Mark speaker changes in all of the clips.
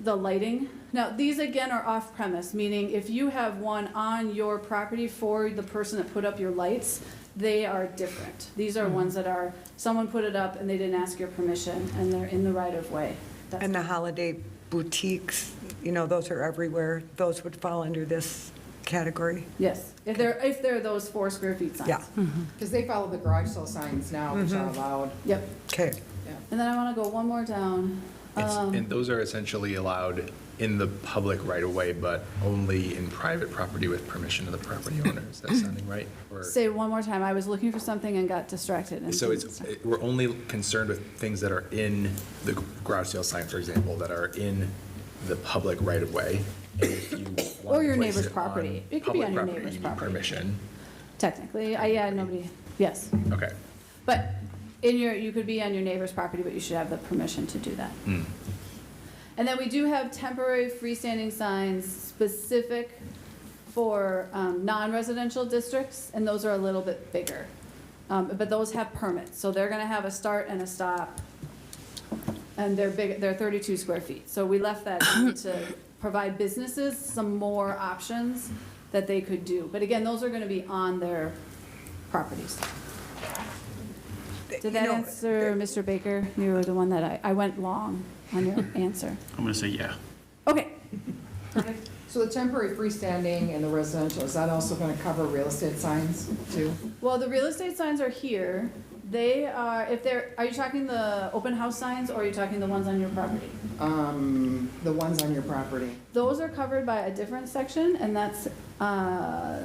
Speaker 1: the lighting. Now, these again are off premise, meaning if you have one on your property for the person that put up your lights, they are different. These
Speaker 2: Mm-hmm.
Speaker 1: are ones that are, someone put it up and they didn't ask your permission and they're in the right of way. That's-
Speaker 3: And the holiday boutiques, you know, those are everywhere. Those would fall under this category.
Speaker 1: Yes, if they're, if they're those four square feet signs. Mm-hmm.
Speaker 3: Yeah,
Speaker 4: Because they follow the garage sale signs now, which are allowed.
Speaker 1: Yep.
Speaker 3: okay.
Speaker 1: And then I want to go one more down.
Speaker 2: It's-
Speaker 1: Um,
Speaker 2: And those are essentially allowed in the public right-of-way, but only in private property with permission of the property owner. Is that sounding right? Or-
Speaker 1: Say it one more time. I was looking for something and got distracted. and-
Speaker 2: So it's, it- we're only concerned with things that are in the garage sale sign, for example, that are in the public right-of-way. And if you want
Speaker 1: Or
Speaker 2: to
Speaker 1: your
Speaker 2: place
Speaker 1: neighbor's
Speaker 2: it on
Speaker 1: property. It could be
Speaker 2: public
Speaker 1: on your
Speaker 2: property,
Speaker 1: neighbor's
Speaker 2: you need
Speaker 1: property.
Speaker 2: Permission.
Speaker 1: Technically, I, yeah, nobody, yes.
Speaker 2: Okay.
Speaker 1: But in your, you could be on your neighbor's property, but you should have the permission to do that.
Speaker 2: Hmm.
Speaker 1: And then we do have temporary freestanding signs specific for um, non-residential districts, and those are a little bit bigger. Um, But those have permits, so they're going to have a start and a stop, and they're big, they're 32 square feet. So we left that in to provide businesses some more options that they could do. But again, those are going to be on their properties.
Speaker 3: You
Speaker 1: Did that
Speaker 3: know,
Speaker 1: answer, Mr. Baker? You were the one that I, I went long on your answer.
Speaker 5: I'm going to say yeah.
Speaker 1: Okay,
Speaker 4: So the temporary freestanding and the residential, is that also going to cover real estate signs too?
Speaker 1: well, the real estate signs are here. They are, if they're, are you talking the open house signs or are you talking the ones on your property?
Speaker 4: Um, The ones on your property?
Speaker 1: Those are covered by a different section and that's, uh,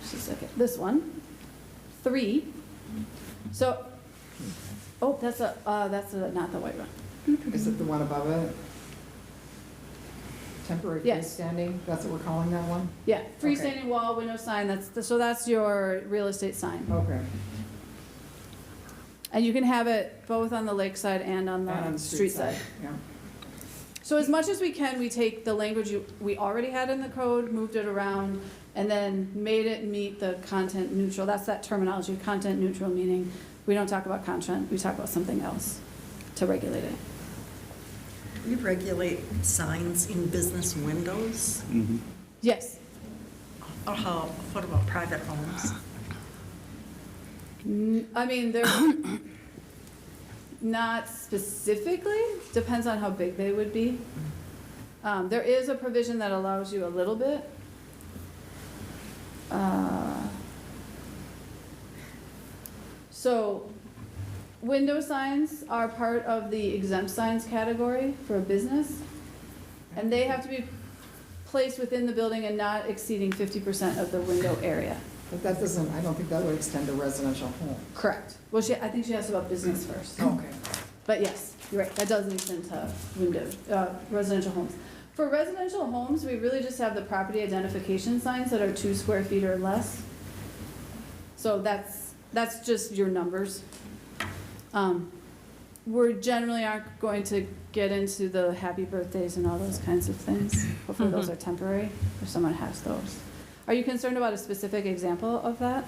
Speaker 1: just a second, this one, three. So, oh, that's a, uh, that's a- not the white one.
Speaker 4: Is it the one above it? Temporary
Speaker 1: Yes.
Speaker 4: freestanding, that's what we're calling that one?
Speaker 1: Yeah, freestanding wall, window sign, that's, the- so that's your real estate sign.
Speaker 4: Okay.
Speaker 1: And you can have it both on the lakeside and on
Speaker 4: And on
Speaker 1: the street side.
Speaker 4: Yeah.
Speaker 1: So as much as we can, we take the language you- we already had in the code, moved it around, and then made it meet the content neutral. That's that terminology, content neutral, meaning we don't talk about content, we talk about something else to regulate it.
Speaker 6: We regulate signs in business windows,
Speaker 5: Mm-hmm.
Speaker 1: Yes,
Speaker 6: or how, what about private homes?
Speaker 1: N- I mean, they're not specifically, depends on how big they would be. Um, There is a provision that allows you a little bit. Uh, So, window signs are part of the exempt signs category for a business, and they have to be placed within the building and not exceeding 50% of the window area.
Speaker 4: But that doesn't, I don't think that would extend to residential home.
Speaker 1: Correct. Well, she, I think she asked about business first.
Speaker 4: Okay.
Speaker 1: But yes, you're right, that does extend to window, uh, residential homes. For residential homes, we really just have the property identification signs that are two square feet or less. So that's, that's just your numbers. Um, We're generally aren't going to get into the happy birthdays and all those kinds of things. Hopefully those are temporary, if someone has those. Are you concerned about a specific example of that?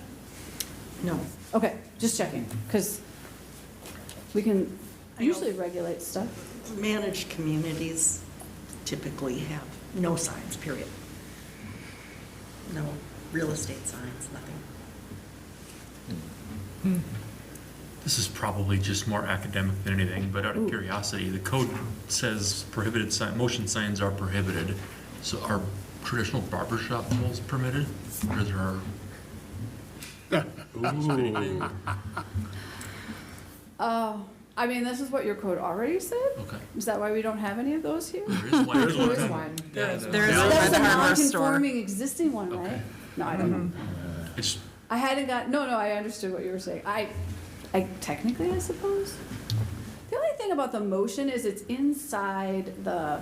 Speaker 4: No.
Speaker 1: Okay, just checking, because we can
Speaker 6: I know.
Speaker 1: usually regulate stuff.
Speaker 6: Managed communities typically have no signs, period. No real estate signs, nothing.
Speaker 5: This is probably just more academic than anything, but out of curiosity, the code says prohibited sign, motion signs are prohibited. So are traditional barber shop poles permitted? Or is there? Ooh,
Speaker 1: Oh, I mean, this is what your code already said?
Speaker 5: okay.
Speaker 1: Is that why we don't have any of those here?
Speaker 5: There is one.
Speaker 4: There is one.
Speaker 5: Yeah,
Speaker 6: There is-
Speaker 5: no.
Speaker 6: there is-
Speaker 1: That's a
Speaker 6: Red Harbor store.
Speaker 1: non-conforming existing one, right?
Speaker 5: Okay.
Speaker 1: No, I don't know.
Speaker 5: It's,
Speaker 1: I hadn't got, no, no, I understood what you were saying. I, I technically, I suppose. The only thing about the motion is it's inside the,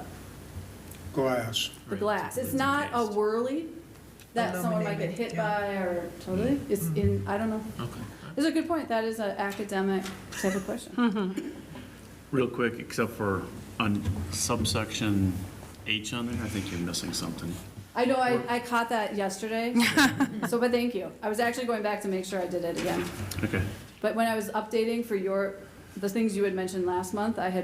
Speaker 7: glass.
Speaker 1: the
Speaker 5: Right,
Speaker 1: glass. It's
Speaker 5: it's
Speaker 1: not a
Speaker 5: encased.
Speaker 1: whirly that someone might get
Speaker 6: Illuminated,
Speaker 1: hit
Speaker 6: yeah.
Speaker 1: by or totally. It's in, I don't know.
Speaker 5: okay.
Speaker 1: It's a good point. That is an academic type of question.
Speaker 5: Real quick, except for on subsection H on there, I think you're missing something.
Speaker 1: I know, I, I caught that yesterday, so, but thank you. I was actually going back to make sure I did it again.
Speaker 5: Okay.
Speaker 1: But when I was updating for your, the things you had mentioned last month, I had